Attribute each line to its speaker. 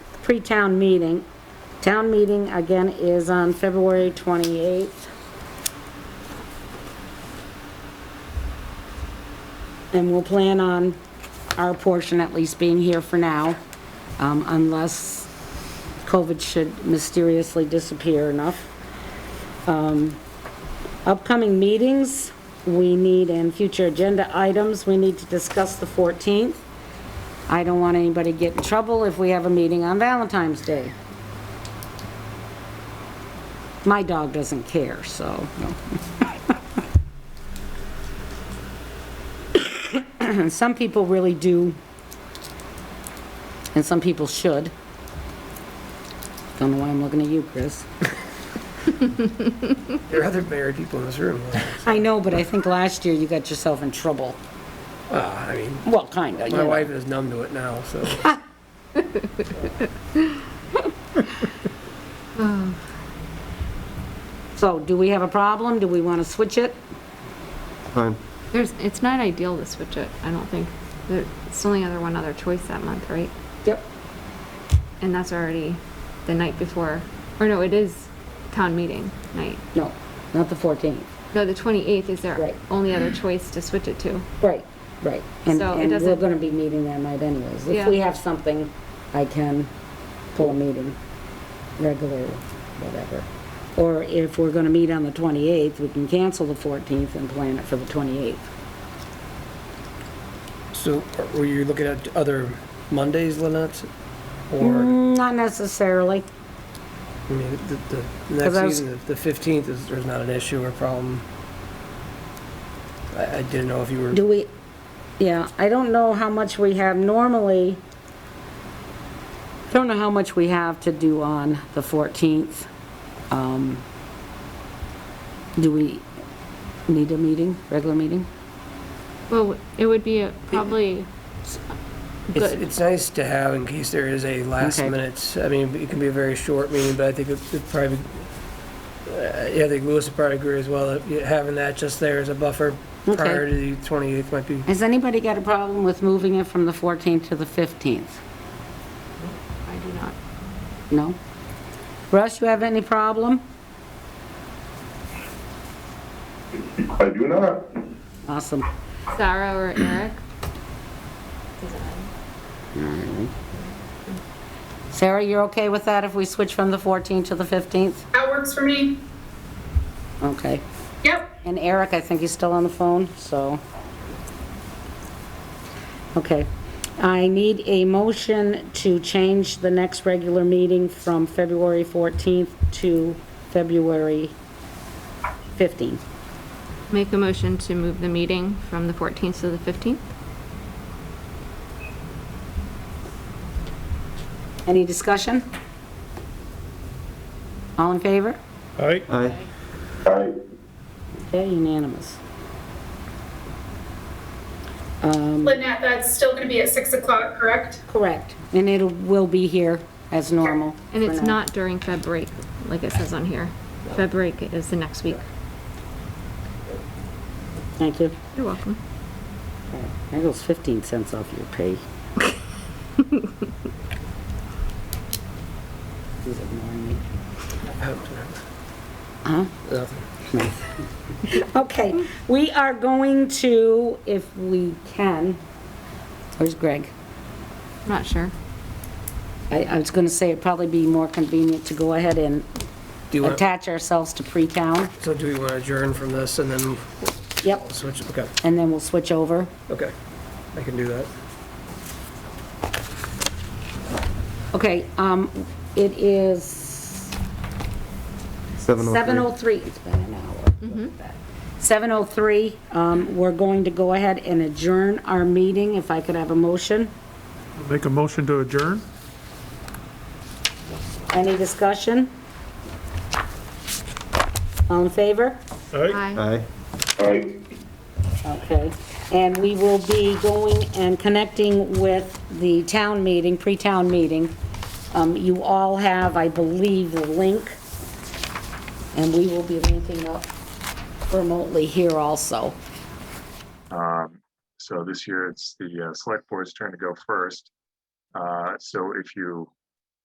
Speaker 1: pre-town meeting. Town meeting again is on February 28th. And we'll plan on our portion at least being here for now, um, unless COVID should mysteriously disappear enough. Um, Upcoming meetings, we need, and future agenda items, we need to discuss the 14th. I don't want anybody to get in trouble if we have a meeting on Valentine's Day. My dog doesn't care, so. And some people really do, and some people should. Don't know why I'm looking at you, Chris.
Speaker 2: There are other married people in this room.
Speaker 1: I know, but I think last year you got yourself in trouble.
Speaker 2: Well, Uh, I mean,
Speaker 1: Well, kinda, you
Speaker 2: my
Speaker 1: know.
Speaker 2: wife is numb to it now, so.
Speaker 1: So do we have a problem? Do we want to switch it?
Speaker 3: Fine.
Speaker 4: There's, it's not ideal to switch it, I don't think. There- It's only other one other choice that month, right?
Speaker 1: Yep.
Speaker 4: And that's already the night before, or no, it is town meeting night.
Speaker 1: No, not the 14th.
Speaker 4: No, the 28th is their
Speaker 1: Right.
Speaker 4: only other choice to switch it to.
Speaker 1: Right, right. And,
Speaker 4: So it
Speaker 1: and we're
Speaker 4: doesn't-
Speaker 1: going to be meeting that night anyways. If
Speaker 4: Yeah.
Speaker 1: we have something, I can pull a meeting, regular, whatever. Or if we're going to meet on the 28th, we can cancel the 14th and plan it for the 28th.
Speaker 2: So are- were you looking at other Mondays, Lynette? Or,
Speaker 1: Mm, Not necessarily.
Speaker 2: I mean, the, the
Speaker 1: Because I
Speaker 2: next
Speaker 1: was-
Speaker 2: season, the fifteenth is, there's not an issue or problem. I, I didn't know if you were,
Speaker 1: Do we, yeah, I don't know how much we have normally, don't know how much we have to do on the 14th. Um, Do we need a meeting, regular meeting?
Speaker 4: Well, it would be a- probably
Speaker 2: it's,
Speaker 4: good.
Speaker 2: it's nice to have in case there is a last
Speaker 1: Okay.
Speaker 2: minute, I mean, it can be a very short meeting, but I think it- it probably, uh, yeah, I think Lewis would probably agree as well, that yeah, having that just there as a buffer
Speaker 1: Okay.
Speaker 2: prior to the twenty-eighth might be
Speaker 1: Has anybody got a problem with moving it from the 14th to the 15th?
Speaker 4: I do not.
Speaker 1: No? Russ, you have any problem?
Speaker 5: I do not.
Speaker 1: Awesome.
Speaker 4: Sarah or Eric?
Speaker 1: Sarah, you're okay with that if we switch from the 14th to the 15th?
Speaker 6: That works for me.
Speaker 1: Okay.
Speaker 6: Yep.
Speaker 1: And Eric, I think he's still on the phone, so. Okay. I need a motion to change the next regular meeting from February 14th to February 15th.
Speaker 4: Make a motion to move the meeting from the 14th to the 15th?
Speaker 1: Any discussion? All in favor?
Speaker 7: Aye.
Speaker 3: Aye.
Speaker 5: I,
Speaker 1: Okay, unanimous.
Speaker 6: Lynette, that's still gonna be at six o'clock, correct?
Speaker 1: Correct. And it will be here as normal.
Speaker 4: And
Speaker 1: for
Speaker 4: it's
Speaker 1: now.
Speaker 4: not during Feb break, like it says on here. Feb break is the next week.
Speaker 1: Thank you.
Speaker 4: You're welcome.
Speaker 1: That goes 15 cents off your pay. He's ignoring me.
Speaker 2: nothing.
Speaker 1: Okay, we are going to, if we can, where's Greg?
Speaker 4: Not sure.
Speaker 1: I, I was gonna say it'd probably be more convenient to go ahead and
Speaker 2: Do you want,
Speaker 1: attach ourselves to pre-town.
Speaker 2: so do we want to adjourn from this and then
Speaker 1: Yep,
Speaker 2: switch? Okay,
Speaker 1: and then we'll switch over.
Speaker 2: okay. I can do that.
Speaker 1: Okay, um, it is
Speaker 3: 7:03.
Speaker 1: 7:03, it's been an hour. 7:03, um, we're going to go ahead and adjourn our meeting, if I could have a motion.
Speaker 7: Make a motion to adjourn?
Speaker 1: Any discussion? All in favor?
Speaker 7: Aye.
Speaker 4: Aye.
Speaker 3: Aye.
Speaker 5: I.
Speaker 1: Okay. And we will be going and connecting with the town meeting, pre-town meeting. Um, You all have, I believe, the link, and we will be linking up remotely here also.
Speaker 8: Um, so this year it's the uh, select board's turn to go first. Uh, so if you